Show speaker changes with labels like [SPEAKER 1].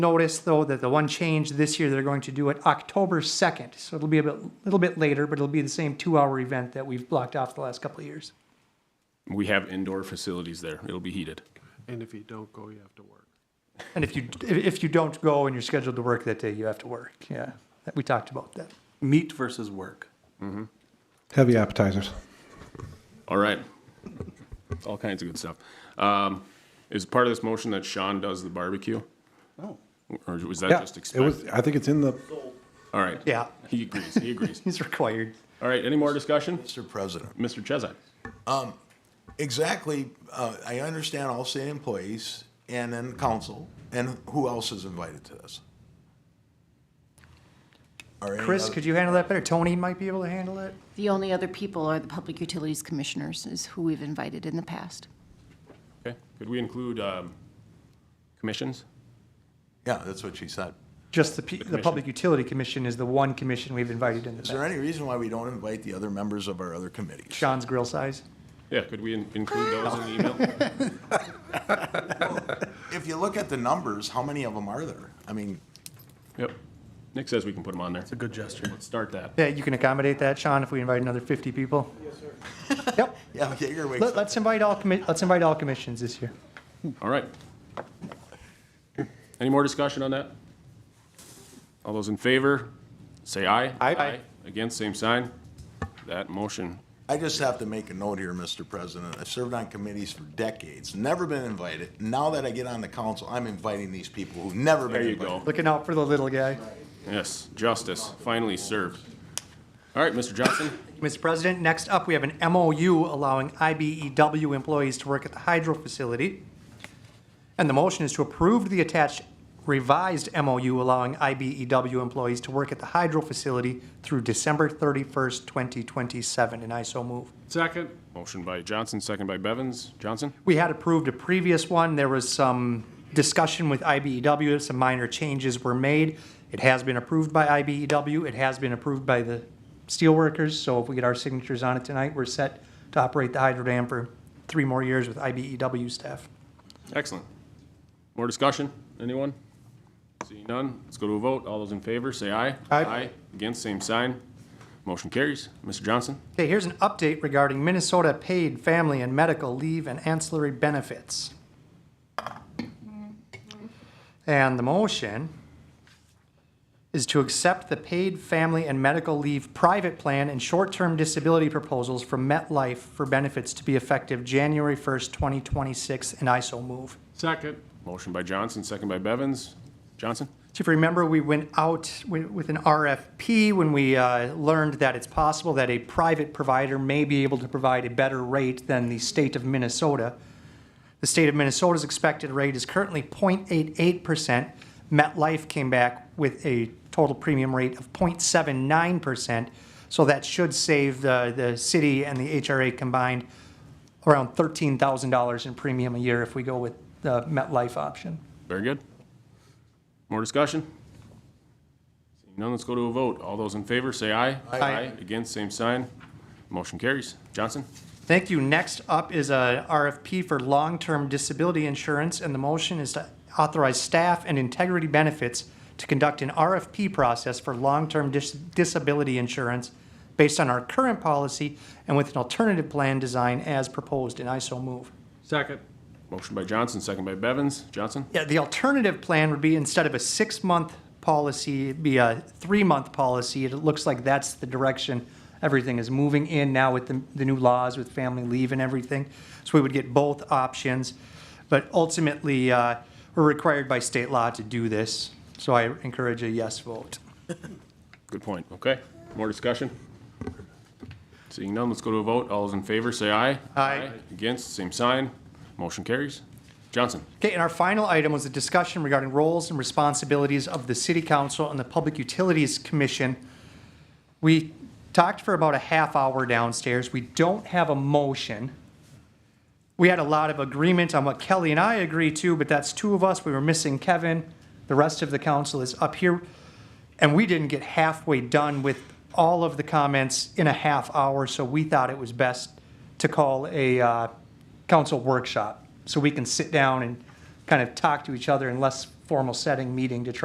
[SPEAKER 1] Notice though that the one change this year, they're going to do it October 2nd. So it'll be a bit, little bit later, but it'll be the same two-hour event that we've blocked off the last couple of years.
[SPEAKER 2] We have indoor facilities there. It'll be heated.
[SPEAKER 3] And if you don't go, you have to work.
[SPEAKER 1] And if you, if if you don't go and you're scheduled to work that day, you have to work. Yeah, that- we talked about that.
[SPEAKER 4] Meat versus work.
[SPEAKER 5] Heavy appetizers.
[SPEAKER 2] All right. All kinds of good stuff. Um, is part of this motion that Sean does the barbecue?
[SPEAKER 4] Oh.
[SPEAKER 2] Or was that
[SPEAKER 5] Yeah,
[SPEAKER 2] just
[SPEAKER 5] it was,
[SPEAKER 2] expected?
[SPEAKER 5] I think it's in the,
[SPEAKER 2] All right.
[SPEAKER 1] Yeah,
[SPEAKER 2] He agrees. He agrees.
[SPEAKER 1] he's required.
[SPEAKER 2] All right. Any more discussion?
[SPEAKER 6] Mr. President.
[SPEAKER 2] Mr. Chezak.
[SPEAKER 6] Exactly. Uh, I understand all state employees and then council and who else is invited to this? Are any
[SPEAKER 1] Chris,
[SPEAKER 6] other-
[SPEAKER 1] could you handle that better? Tony might be able to handle it.
[SPEAKER 7] The only other people are the Public Utilities Commissioners, is who we've invited in the past.
[SPEAKER 2] Okay. Could we include um, commissions?
[SPEAKER 6] Yeah, that's what she said.
[SPEAKER 1] Just the, P- the
[SPEAKER 2] commission.
[SPEAKER 1] Public Utility Commission is the one commission we've invited in the
[SPEAKER 6] Is there
[SPEAKER 1] past.
[SPEAKER 6] any reason why we don't invite the other members of our other committees?
[SPEAKER 1] Sean's grill size.
[SPEAKER 2] Yeah. Could we in- include those in the email?
[SPEAKER 6] If you look at the numbers, how many of them are there? I mean,
[SPEAKER 2] Yep. Nick says we can put them on there.
[SPEAKER 4] It's a good gesture.
[SPEAKER 2] Let's start that.
[SPEAKER 1] Yeah, you can accommodate that, Sean, if we invite another 50 people? Yes, sir. Yep.
[SPEAKER 6] yeah, Jaeger wakes
[SPEAKER 1] Let,
[SPEAKER 6] up.
[SPEAKER 1] let's invite all commi, let's invite all commissions this year.
[SPEAKER 2] All right. Any more discussion on that? All those in favor, say aye.
[SPEAKER 1] Aye.
[SPEAKER 2] Against, same sign. That motion,
[SPEAKER 6] I just have to make a note here, Mr. President. I've served on committees for decades, never been invited. Now that I get on the council, I'm inviting these people who've never
[SPEAKER 2] there
[SPEAKER 6] been
[SPEAKER 2] you
[SPEAKER 6] invited.
[SPEAKER 2] go.
[SPEAKER 1] Looking out for the little guy.
[SPEAKER 2] Yes, justice, finally served. All right, Mr. Johnson,
[SPEAKER 1] Mr. President, next up, we have an MOU allowing IBEW employees to work at the hydro facility. And the motion is to approve the attached revised MOU allowing IBEW employees to work at the hydro facility through December 31st, 2027, and I so move.
[SPEAKER 3] Second,
[SPEAKER 2] motion by Johnson, second by Bevins. Johnson?
[SPEAKER 1] We had approved a previous one. There was some discussion with IBEW, some minor changes were made. It has been approved by IBEW, it has been approved by the steelworkers, so if we get our signatures on it tonight, we're set to operate the hydro dam for three more years with IBEW staff.
[SPEAKER 2] Excellent. More discussion, anyone? Seeing none, let's go to a vote. All those in favor, say aye.
[SPEAKER 1] Aye.
[SPEAKER 2] Against, same sign. Motion carries. Mr. Johnson?
[SPEAKER 1] Okay, here's an update regarding Minnesota paid family and medical leave and ancillary benefits. And the motion is to accept the paid family and medical leave private plan and short-term disability proposals from MetLife for benefits to be effective January 1st, 2026, and I so move.
[SPEAKER 3] second,
[SPEAKER 2] Motion by Johnson, second by Bevins. Johnson?
[SPEAKER 1] So if you remember, we went out wi- with an RFP when we uh, learned that it's possible that a private provider may be able to provide a better rate than the state of Minnesota. The state of Minnesota's expected rate is currently 0.88%. MetLife came back with a total premium rate of 0.79%. So that should save the, the city and the HRA combined around $13,000 in premium a year if we go with the MetLife option.
[SPEAKER 2] Very good. More discussion? Seeing none, let's go to a vote. All those in favor, say aye.
[SPEAKER 1] Aye.
[SPEAKER 2] Against, same sign. Motion carries. Johnson?
[SPEAKER 1] Thank you. Next up is a RFP for long-term disability insurance, and the motion is to authorize staff and integrity benefits to conduct an RFP process for long-term dis- disability insurance based on our current policy and with an alternative plan design as proposed, and I so move.
[SPEAKER 3] second,
[SPEAKER 2] Motion by Johnson, second by Bevins. Johnson?
[SPEAKER 1] Yeah, the alternative plan would be instead of a six-month policy, it'd be a three-month policy. It looks like that's the direction everything is moving in now with the, the new laws with family leave and everything. So we would get both options. But ultimately, uh, we're required by state law to do this. So I encourage a yes vote.
[SPEAKER 2] Good point. Okay. More discussion? Seeing none, let's go to a vote. All those in favor, say aye.
[SPEAKER 1] Aye.
[SPEAKER 2] Against, same sign. Motion carries. Johnson?
[SPEAKER 1] Okay, and our final item was a discussion regarding roles and responsibilities of the City Council and the Public Utilities Commission. We talked for about a half hour downstairs. We don't have a motion. We had a lot of agreement on what Kelly and I agreed to, but that's two of us. We were missing Kevin. The rest of the council is up here. And we didn't get halfway done with all of the comments in a half hour, so we thought it was best to call a uh, council workshop so we can sit down and kind of talk to each other in less formal setting meeting to try